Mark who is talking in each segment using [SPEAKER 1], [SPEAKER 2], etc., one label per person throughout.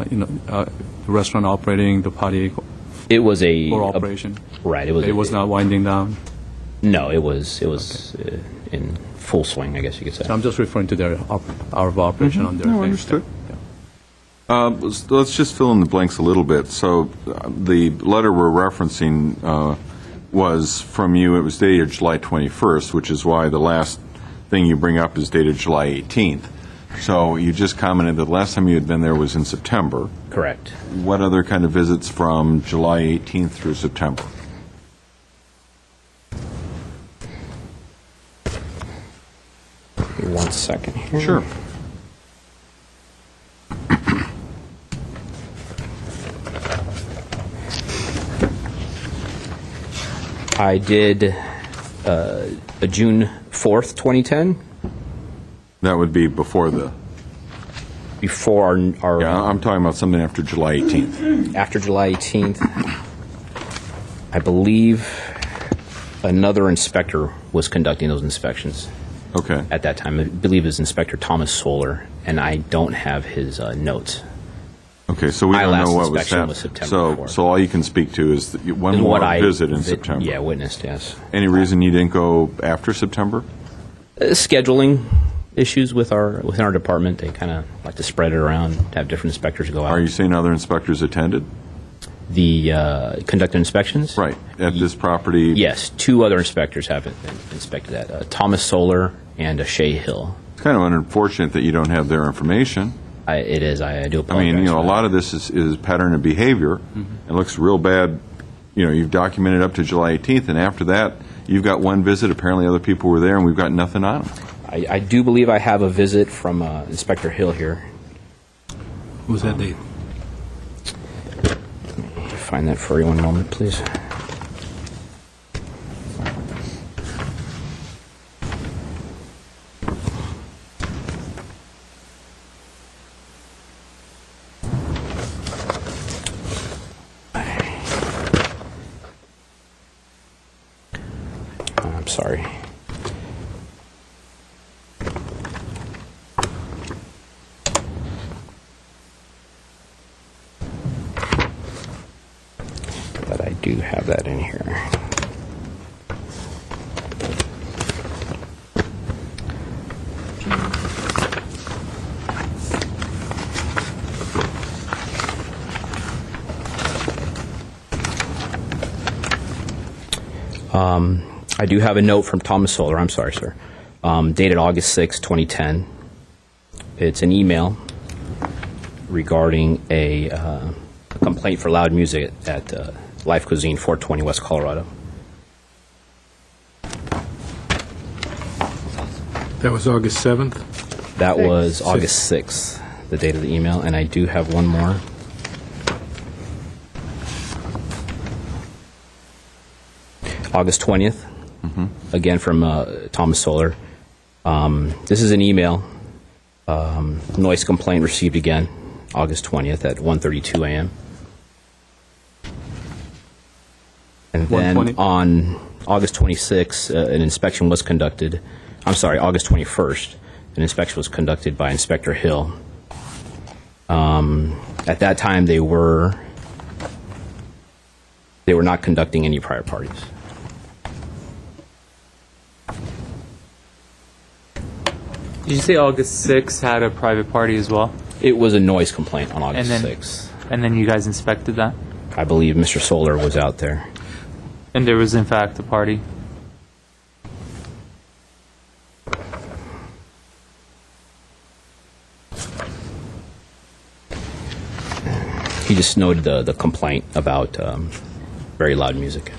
[SPEAKER 1] uh, you know, uh, the restaurant operating, the party
[SPEAKER 2] It was a
[SPEAKER 1] or
[SPEAKER 2] a-
[SPEAKER 1] operation?
[SPEAKER 2] right. It was.
[SPEAKER 1] It was not winding down?
[SPEAKER 2] No, it was. It was uh, in full swing. I guess you could say.
[SPEAKER 1] I'm just referring to their op- hour of operation
[SPEAKER 2] Mm-hmm.
[SPEAKER 1] on their
[SPEAKER 3] No,
[SPEAKER 1] thing.
[SPEAKER 3] understood.
[SPEAKER 1] Yeah.
[SPEAKER 4] Uh, let's- Let's just fill in the blanks a little bit. So uh, the letter we're referencing uh, was from you, it was dated July 21st, which is why the last thing you bring up is dated July 18th. So you just commented that the last time you had been there was in September.
[SPEAKER 2] Correct.
[SPEAKER 4] What other kind of visits from July 18th through September?
[SPEAKER 2] Give me One second here.
[SPEAKER 4] Sure.
[SPEAKER 2] I did uh, a June fourth, twenty ten,
[SPEAKER 4] That would be before the,
[SPEAKER 2] before our, our
[SPEAKER 4] yeah, I'm talking about something after July 18th.
[SPEAKER 2] after July eighteenth. I believe another inspector was conducting those inspections
[SPEAKER 4] Okay.
[SPEAKER 2] at that time. I believe it was Inspector Thomas Solar, and I don't have his uh, notes.
[SPEAKER 4] Okay, so we
[SPEAKER 2] My
[SPEAKER 4] don't
[SPEAKER 2] last
[SPEAKER 4] know what was
[SPEAKER 2] inspection
[SPEAKER 4] happening.
[SPEAKER 2] was September
[SPEAKER 4] So,
[SPEAKER 2] 4th.
[SPEAKER 4] so all you can speak to is that you- one
[SPEAKER 2] Is
[SPEAKER 4] more
[SPEAKER 2] what I
[SPEAKER 4] visit in
[SPEAKER 2] vi-
[SPEAKER 4] September.
[SPEAKER 2] Yeah, witnessed. Yes.
[SPEAKER 4] Any reason you didn't go after September?
[SPEAKER 2] Uh, scheduling issues with our within our department. They kind of like to spread it around, have different inspectors go out.
[SPEAKER 4] Are you saying other inspectors attended?
[SPEAKER 2] the uh, conducted inspections?
[SPEAKER 4] Right, at this property?
[SPEAKER 2] Yes, two other inspectors have in- inspected that: uh, Thomas Solar and uh, Shea Hill.
[SPEAKER 4] It's kind of unfortunate that you don't have their information.
[SPEAKER 2] I, it is. I, I do
[SPEAKER 4] I
[SPEAKER 2] apologize.
[SPEAKER 4] mean, you know, a
[SPEAKER 2] for
[SPEAKER 4] lot of this is, is pattern of behavior. It looks real bad, you know, you've documented up to July 18th, and after that, you've got one visit, apparently other people were there, and we've got nothing on them.
[SPEAKER 2] that. I, I do believe I have a visit from uh, Inspector Hill here.
[SPEAKER 5] What's that date?
[SPEAKER 2] Find that for you one moment, please. I'm sorry. But I do have that in here. Um, I do have a note from Thomas Solar, I'm sorry, sir, um, dated August 6, 2010. It's an email regarding a uh, complaint for loud music at uh, Life Cuisine, 420 West Colorado.
[SPEAKER 5] That was August 7th?
[SPEAKER 2] That
[SPEAKER 6] Six.
[SPEAKER 2] was August 6th, the date of the email, and I do have one more. August 20th, again from uh, Thomas Solar. Um, This is an email, um, noise complaint received again, August 20th at 1:32 a.m. And then
[SPEAKER 1] 1:20?
[SPEAKER 2] on August 26th, uh, an inspection was conducted, I'm sorry, August 21st, an inspection was conducted by Inspector Hill. Um, At that time, they were, they were not conducting any prior parties.
[SPEAKER 7] Did you say August 6th had a private party as well?
[SPEAKER 2] It was a noise complaint on August
[SPEAKER 7] then-
[SPEAKER 2] 6th.
[SPEAKER 7] And then you guys inspected that?
[SPEAKER 2] I believe Mr. Solar was out there.
[SPEAKER 7] And there was, in fact, a party?
[SPEAKER 2] He just noted the, the complaint about um, very loud music.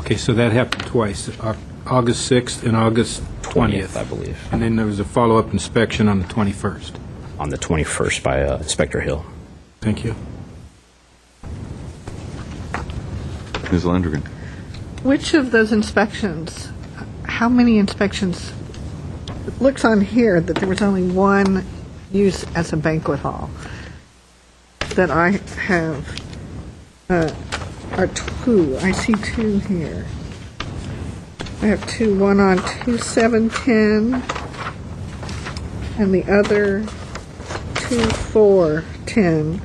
[SPEAKER 5] Okay, so that happened twice, Au- August 6th and August 20th.
[SPEAKER 2] I believe,
[SPEAKER 5] And then there was a follow-up inspection on the 21st.
[SPEAKER 2] on the 21st by uh, Inspector Hill.
[SPEAKER 5] Thank you.
[SPEAKER 4] Ms. Landrigan?
[SPEAKER 6] Which of those inspections, how many inspections? It looks on here that there was only one use as a banquet hall that I have, uh, or two, I see two here. I have two, one on two seven ten, and the other two four ten.